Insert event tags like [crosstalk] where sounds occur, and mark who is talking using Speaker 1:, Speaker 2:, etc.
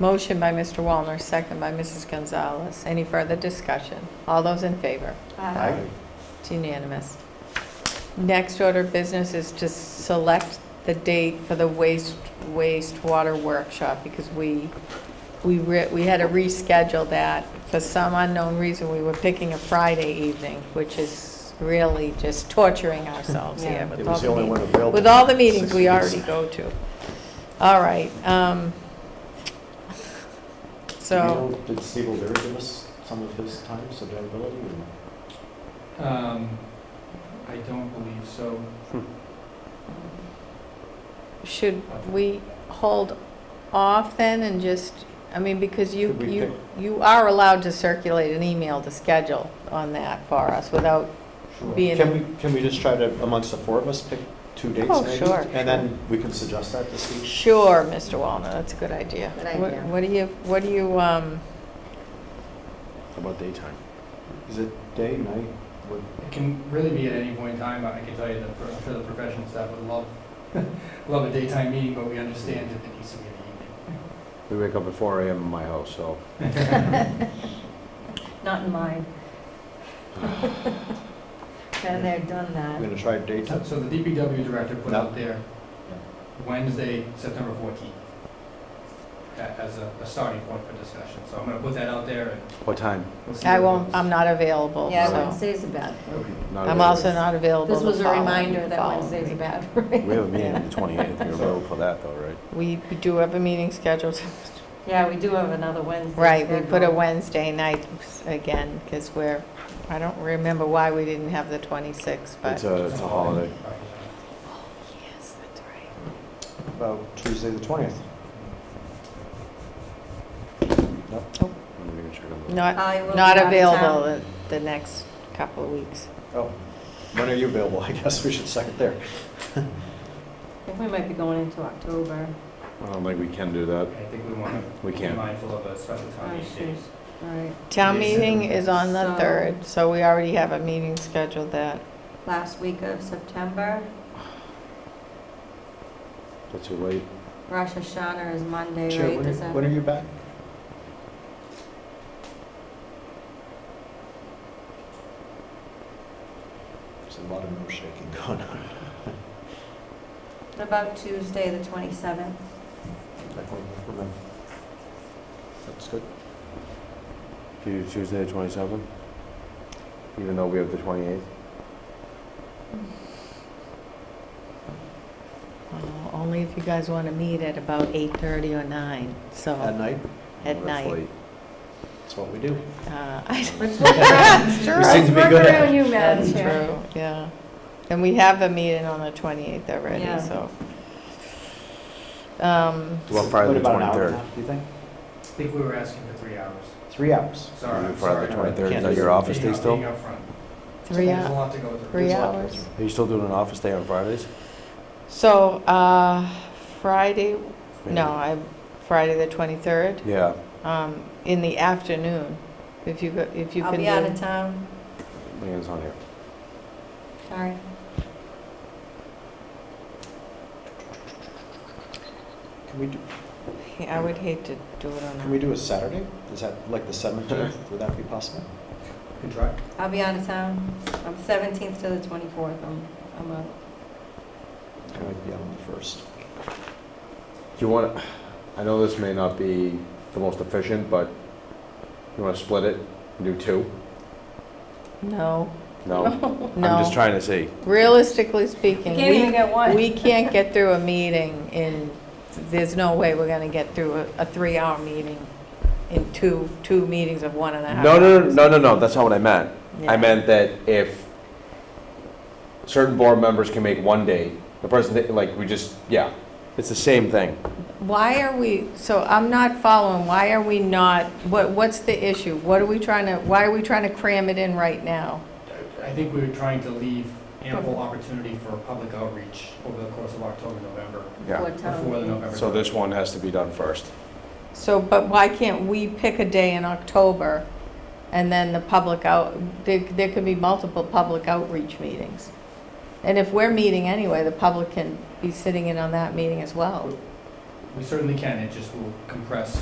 Speaker 1: Motion by Mr. Wallner, second by Mrs. Gonzalez. Any further discussion? All those in favor?
Speaker 2: Uh,
Speaker 3: Aye.
Speaker 1: It's unanimous. Next order of business is to select the date for the waste, wastewater workshop, because we, we, re- we had to reschedule that. For some unknown reason, we were picking a Friday evening, which is really just torturing ourselves here. with
Speaker 3: It
Speaker 1: all
Speaker 3: was the only
Speaker 1: meetings.
Speaker 3: one available.
Speaker 1: With all the meetings we
Speaker 3: 60
Speaker 1: already go to. All right, um, so,
Speaker 3: Did you know- Did Steve O'Leary give us some of his times availability? or-
Speaker 4: Um, I don't believe so.
Speaker 1: should we hold off then and just, I mean, because you,
Speaker 3: Could we
Speaker 1: you, you are allowed to circulate an email to schedule on that for us without
Speaker 4: Sure.
Speaker 1: being.
Speaker 3: Can we, can we just try to, amongst the four of us, pick two dates
Speaker 1: Oh,
Speaker 3: maybe?
Speaker 1: sure,
Speaker 3: And then we can suggest that to Steve?
Speaker 1: Sure, Mr. Walner, that's a good idea.
Speaker 2: Good
Speaker 1: What-
Speaker 2: idea.
Speaker 1: What do you, what do you, um,
Speaker 5: How about daytime?
Speaker 3: Is it day, night? What-
Speaker 4: It can really be at any point in time, but I can tell you that pro- I'm sure the professional staff would love, [laughs] love a daytime meeting, but we understand if it needs to be in the
Speaker 5: We wake up at four AM in my house, so
Speaker 2: Not
Speaker 1: [laughs]
Speaker 2: in mine. Been there, done
Speaker 3: We're
Speaker 2: that.
Speaker 3: going to try
Speaker 4: evening. So-
Speaker 3: daytime?
Speaker 4: So the DPW director put
Speaker 3: No.
Speaker 4: out there Wednesday, September 14th, a- as a, a starting point for discussion. So I'm gonna put that out there and
Speaker 5: what time?
Speaker 4: we'll see.
Speaker 1: I
Speaker 4: what
Speaker 1: won't,
Speaker 4: goes.
Speaker 1: I'm not available,
Speaker 2: Yeah,
Speaker 5: so-
Speaker 2: Wednesday's a bad.
Speaker 5: Not
Speaker 1: I'm
Speaker 5: available.
Speaker 1: also not available
Speaker 2: This
Speaker 1: the
Speaker 2: was a
Speaker 1: following-
Speaker 2: reminder that
Speaker 1: following
Speaker 2: Wednesday's a
Speaker 1: week.
Speaker 2: bad [laughs] for me.
Speaker 5: We have a meeting on the
Speaker 3: [laughs]
Speaker 5: twenty-eighth, you're available for that though, right?
Speaker 1: We we do have a meeting
Speaker 2: [laughs]
Speaker 1: scheduled,
Speaker 2: Yeah, we do have another Wednesday.
Speaker 1: right, we put a
Speaker 2: scheduled.
Speaker 1: Wednesday night again, because we're, I don't remember why we didn't have the 26th, but.
Speaker 5: It's a, it's a holiday.
Speaker 1: Yes, that's right.
Speaker 3: About Tuesday, the 20th?
Speaker 5: Oh. I'm gonna check on the-
Speaker 1: Not,
Speaker 2: I will Uh, be
Speaker 1: not
Speaker 2: out of
Speaker 1: available
Speaker 2: town.
Speaker 1: the- the next couple of weeks.
Speaker 3: Oh, when are you available? [laughs] I guess we should second there.
Speaker 2: I think we might be going into October.
Speaker 5: I don't think we can do that.
Speaker 4: I think we wanna
Speaker 5: We
Speaker 4: be
Speaker 5: can't.
Speaker 4: mindful of a special time
Speaker 2: Oh,
Speaker 4: these
Speaker 2: shoot.
Speaker 4: days.
Speaker 2: All right.
Speaker 1: Town
Speaker 4: Yes.
Speaker 1: meeting is on the
Speaker 2: So-
Speaker 1: 3rd, so we already have a meeting scheduled that.
Speaker 2: Last week of September,
Speaker 5: That's too late.
Speaker 2: Rosh Hashanah is Monday,
Speaker 3: Chair,
Speaker 2: right?
Speaker 3: when are-
Speaker 2: Is that-
Speaker 3: When are you back? There's a lot of no shaking [laughs] going on.
Speaker 2: What About Tuesday, the
Speaker 1: [laughs]
Speaker 2: 27th.
Speaker 3: That one for me. That's good.
Speaker 5: Do you Tuesday the twenty-seventh? Even though we have the twenty-eighth?
Speaker 1: Uh, Only if you guys want to meet at about 8:30 or 9,
Speaker 3: At
Speaker 1: so
Speaker 3: night,
Speaker 1: at night.
Speaker 3: that's what we do.
Speaker 1: Uh, [laughs] I
Speaker 2: Let's work around-
Speaker 1: Sure.
Speaker 3: You seem
Speaker 2: let's
Speaker 3: to be
Speaker 2: work
Speaker 3: good at
Speaker 2: around you, Madam
Speaker 1: That's
Speaker 2: Chair.
Speaker 1: true, yeah. And we have a meeting on the 28th
Speaker 2: Yeah.
Speaker 1: already, so. Um,
Speaker 5: Well, Friday
Speaker 3: What
Speaker 5: the
Speaker 3: about an hour and a
Speaker 5: 23rd.
Speaker 3: half, Do you think?
Speaker 4: I think we were asking for three hours.
Speaker 3: Three hours.
Speaker 4: Sorry, I'm
Speaker 5: Friday
Speaker 4: sorry.
Speaker 5: the
Speaker 3: sorry.
Speaker 5: twenty-third, is
Speaker 3: Can't
Speaker 5: that
Speaker 3: do
Speaker 5: your
Speaker 3: it.
Speaker 5: office
Speaker 4: Being
Speaker 5: day
Speaker 4: up-
Speaker 5: still?
Speaker 4: being upfront.
Speaker 1: Three
Speaker 4: There's a
Speaker 1: hours.
Speaker 4: lot to go through.
Speaker 1: Three
Speaker 3: There's a lot to go
Speaker 1: hours.
Speaker 3: through.
Speaker 5: Are you still doing an office day on Fridays?
Speaker 1: So, uh, Friday,
Speaker 5: Maybe.
Speaker 1: no, I, Friday the 23rd,
Speaker 5: Yeah,
Speaker 1: um, in the afternoon, if you, go- if you
Speaker 2: I'll
Speaker 1: can
Speaker 2: be out
Speaker 1: do.
Speaker 2: of town.
Speaker 5: Leanne's on here.
Speaker 2: Sorry.
Speaker 3: Can we do,
Speaker 1: I would hate to do it
Speaker 3: can we
Speaker 1: on,
Speaker 3: do a Saturday? Is that like the seventeenth? Would that be possible?
Speaker 4: Good try.
Speaker 2: I'll be out of town. I'm 17th to the 24th. I'm, I'm out.
Speaker 3: Can we be on the first?
Speaker 5: Do you want, I know this may not be the most efficient, but you want to split it, and do two?
Speaker 1: a- no, [laughs]
Speaker 5: No? I'm
Speaker 1: no.
Speaker 5: just trying to see.
Speaker 1: Realistically speaking,
Speaker 2: Can't even
Speaker 1: we,
Speaker 2: get [laughs] one.
Speaker 1: we can't get through a meeting in, there's no way we're gonna get through a, a three-hour meeting in two, two meetings of one and a half
Speaker 5: No, no, no,
Speaker 1: hours.
Speaker 5: no, no, no, that's not what I meant.
Speaker 1: Yeah.
Speaker 5: I meant that if certain board members can make one day, the person, that- like, we just, yeah, it's the same thing.
Speaker 1: Why are we, so I'm not following, why are we not, what, what's the issue? What are we trying to, why are we trying to cram it in right now?
Speaker 4: I think we were trying to leave ample opportunity for public outreach over the course of October, November,
Speaker 5: Yeah.
Speaker 2: What town?
Speaker 4: before the November.
Speaker 5: So this one has to be done first.
Speaker 1: So, but why can't we pick a day in October and then the public out, there, there could be multiple public outreach meetings? And if we're meeting anyway, the public can be sitting in on that meeting as well.
Speaker 4: We certainly can, it just will compress